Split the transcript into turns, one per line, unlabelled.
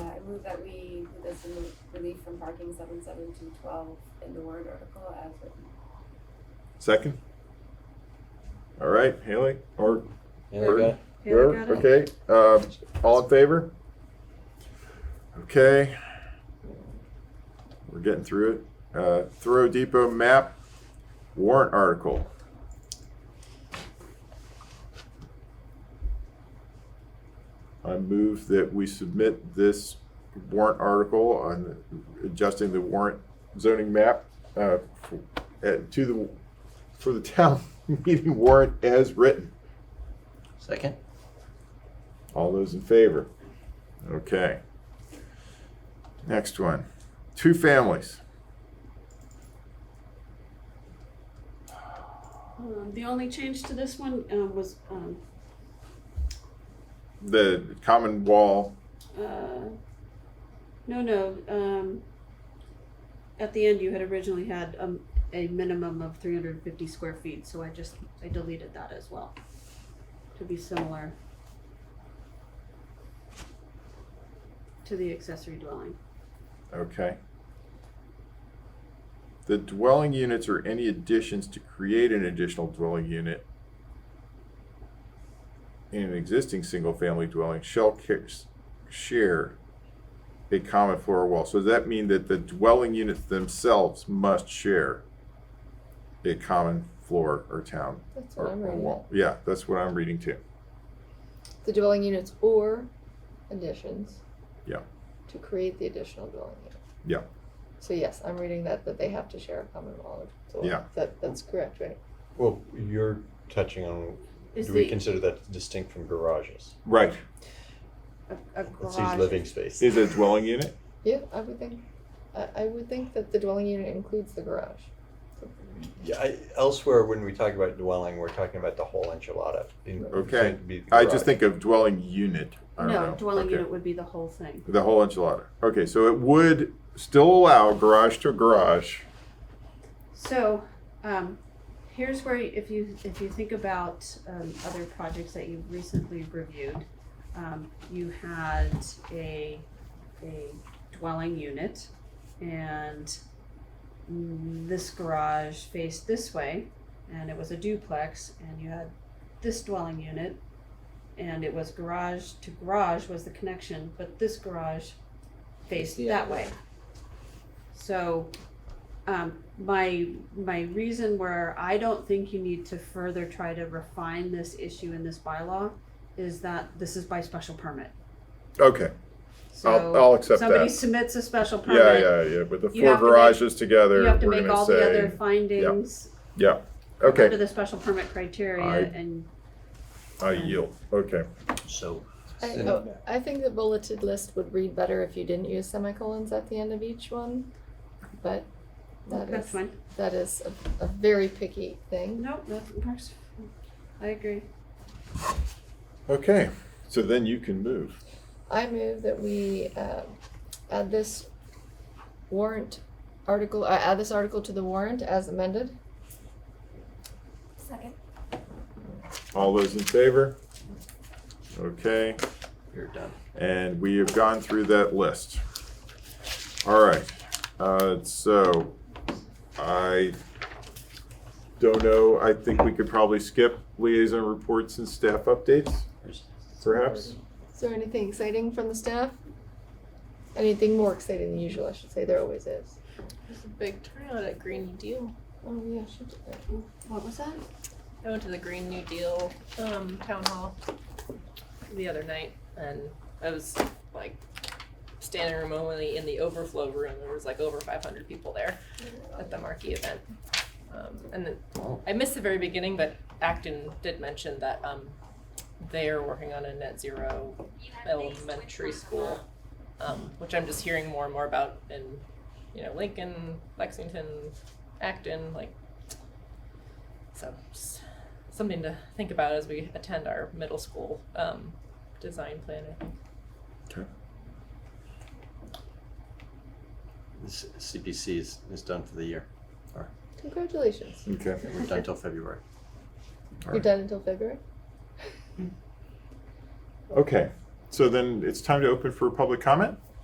move that we, put this in the relief from parking seven seven two twelve in the warrant article as written.
Second? All right, Haley, or
Yeah, they got it.
Herb, okay, um, all in favor? Okay. We're getting through it. Uh, Thorough Depot map warrant article. I move that we submit this warrant article on adjusting the warrant zoning map, uh, for- uh, to the, for the town meeting warrant as written.
Second?
All those in favor? Okay. Next one. Two families.
Um, the only change to this one um, was um,
The common wall.
uh, no, no. Um, at the end, you had originally had um, a minimum of 350 square feet, so I just I deleted that as well to be similar to the accessory dwelling.
Okay. The dwelling units or any additions to create an additional dwelling unit in an existing single family dwelling shall ca- share a common floor wall. So does that mean that the dwelling units themselves must share a common floor or town
That's
or,
what I'm
or
reading.
wall. Yeah, that's what I'm reading too.
The dwelling units or additions.
Yeah.
To create the additional dwelling unit.
Yeah.
So yes, I'm reading that, that they have to share a common wall. of door.
Yeah.
That, that's correct, right?
Well, you're touching on,
Is
do we
the
consider that distinct from garages?
Right.
a, a
Let's use
garage?
living space.
Is a dwelling unit?
Yeah, I would think, I, I would think that the dwelling unit includes the garage.
Yeah, I, elsewhere, when we talk about dwelling, we're talking about the whole enchilada. In-
Okay.
it'd be the
I just
garage.
think of dwelling unit. I don't
no,
know.
dwelling
Okay.
unit would be the whole thing.
The whole enchilada. Okay, so it would still allow garage to garage.
So, um, here's where if you if you think about um, other projects that you've recently reviewed, um, you had a a dwelling unit, and this garage faced this way, and it was a duplex, and you had this dwelling unit, and it was garage to garage was the connection, but this garage faced
the
that
other
way. So, um, my, my reason where I don't think you need to further try to refine this issue in this bylaw is that this is by special permit.
Okay, I'll,
So
I'll accept
somebody
that.
submits a special
Yeah,
permit,
yeah, yeah, with the
You
four
have to make-
garages together,
you have to
we're
make
gonna
all the other
say,
findings
yeah,
under
okay,
the special permit
I-
criteria and,
I yield, okay.
So.
I,
send
oh,
it back.
I think the bulleted list would read better if you didn't use semicolons at the end of each one, but that
that's
is,
fine.
that is a, a very picky thing.
Nope, that works. I agree.
Okay, so then you can move.
I move that we uh, add this warrant article, uh, add this article to the warrant as amended.
Second.
All those in favor? Okay,
You're done.
and we have gone through that list. All right, uh, so I don't know, I think we could probably skip liaison reports and staff updates,
There's-
perhaps?
Is there anything exciting from the staff? Anything more exciting than usual, I should say. There always is.
There's a big turnout at Green New Deal.
Oh yeah, should do that.
What was that?
I went to the Green New Deal um, town hall the other night, and I was like standing room only in the overflow room. There was like over 500 people there at the marquee event. Um, and then
Wow.
I missed the very beginning, but Acton did mention that um, they are working on a net zero elementary school, um, which I'm just hearing more and more about in, you know, Lincoln, Lexington, Acton, like. So, just something to think about as we attend our middle school um, design plan. I think.
This CPC is, is done for the year.
Congratulations.
Okay.
We're done till February.
All
You're
right.
done until February.
Okay, so then it's time to open for public comment?